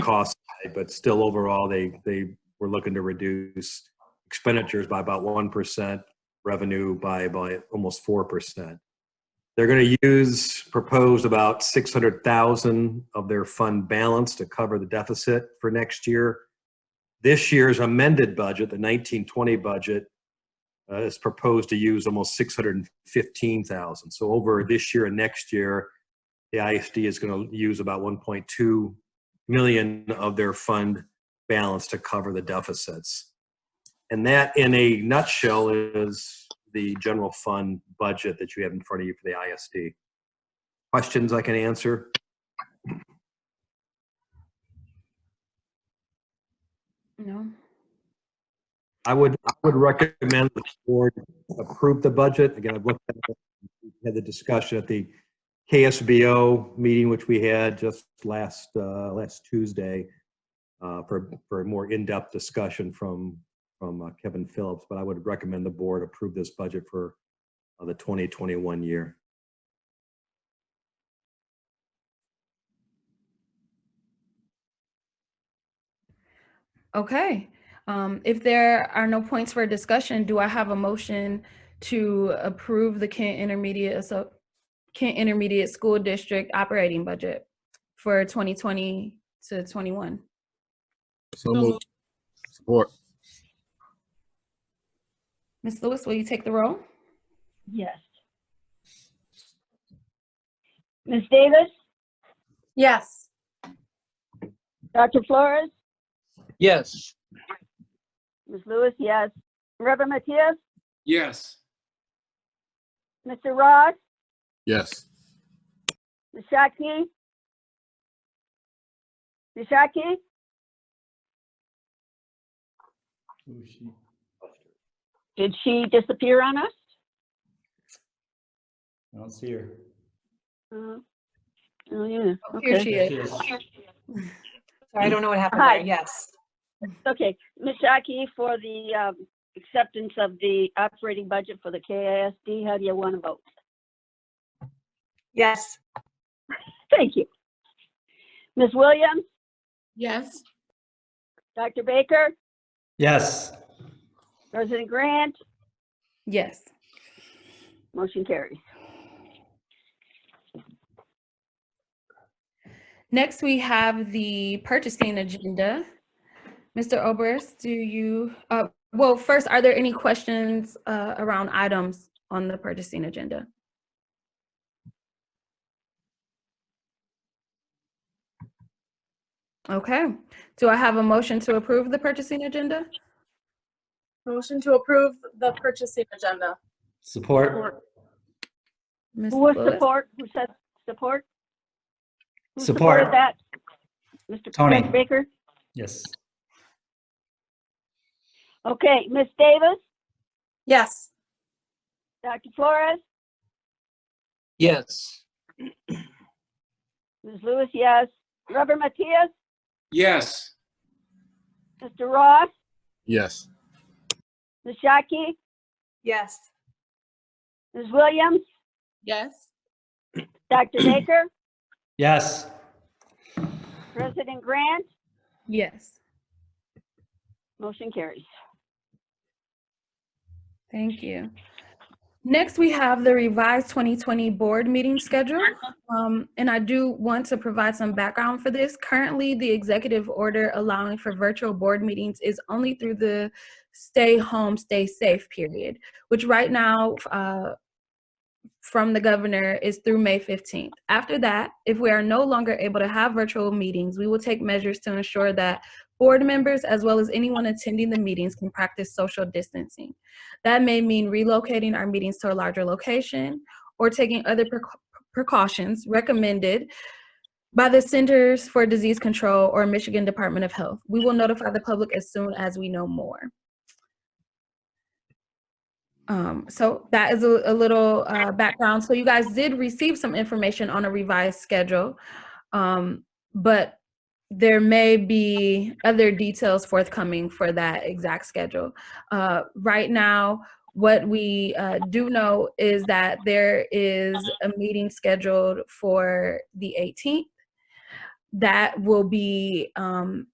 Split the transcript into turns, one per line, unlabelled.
cost side, but still overall, they, they were looking to reduce expenditures by about 1%, revenue by, by almost 4%. They're going to use proposed about 600,000 of their fund balance to cover the deficit for next year. This year's amended budget, the 1920 budget, uh, is proposed to use almost 615,000. So over this year and next year, the ISD is going to use about 1.2 million of their fund balance to cover the deficits. And that, in a nutshell, is the general fund budget that you have in front of you for the ISD. Questions I can answer?
No.
I would, I would recommend the board approve the budget. Again, I've looked at it, we had the discussion at the KSBO meeting, which we had just last, uh, last Tuesday, uh, for, for a more in-depth discussion from, from uh, Kevin Phillips, but I would recommend the board approve this budget for uh, the 2021 year.
Okay. Um, if there are no points for discussion, do I have a motion to approve the Kent Intermediate, so Kent Intermediate School District operating budget for 2020 to 21?
So moved. Support.
Ms. Lewis, will you take the roll?
Yes. Ms. Davis?
Yes.
Dr. Flores?
Yes.
Ms. Lewis, yes. Reverend Matias?
Yes.
Mr. Ross?
Yes.
Ms. Shaki? Ms. Shaki? Did she disappear on us?
I don't see her.
Uh, Oh, yeah,
Here
okay.
she
There she
is.
is.
Sorry, I don't know what happened
Hi.
there. Yes.
Okay, Ms. Shaki, for the um, acceptance of the operating budget for the KISD, how do you want to vote?
Yes.
Thank you. Ms. Williams?
Yes.
Dr. Baker?
Yes.
President Grant?
Yes.
Motion carries.
Next, we have the purchasing agenda. Mr. Oberst, do you, uh, well, first, are there any questions, uh, around items on the purchasing agenda? Okay, do I have a motion to approve the purchasing agenda?
Motion to approve the purchasing agenda.
Support.
Ms.
Who was
Lewis?
support? Who said support? Who
Support.
supported that? Mr.
Tony.
Frank Baker?
Yes.
Okay, Ms. Davis,
Yes.
Dr. Flores,
Yes.
Ms. Lewis, yes. Reverend Matias,
Yes.
Mr. Ross,
Yes.
Ms. Shaki,
Yes.
Ms. Williams,
Yes.
Dr. Baker,
Yes.
President Grant,
Yes,
motion carries.
thank you. Next, we have the revised 2020 board meeting schedule. Um, and I do want to provide some background for this. Currently, the executive order allowing for virtual board meetings is only through the stay home, stay safe period, which right now, uh, from the governor is through May 15th. After that, if we are no longer able to have virtual meetings, we will take measures to ensure that board members, as well as anyone attending the meetings, can practice social distancing. That may mean relocating our meetings to a larger location or taking other precau- precautions recommended by the Centers for Disease Control or Michigan Department of Health. We will notify the public as soon as we know more. Um, so that is a, a little uh, background. So you guys did receive some information on a revised schedule, um, but there may be other details forthcoming for that exact schedule. Uh, right now, what we uh, do know is that there is a meeting scheduled for the 18th. that will be um,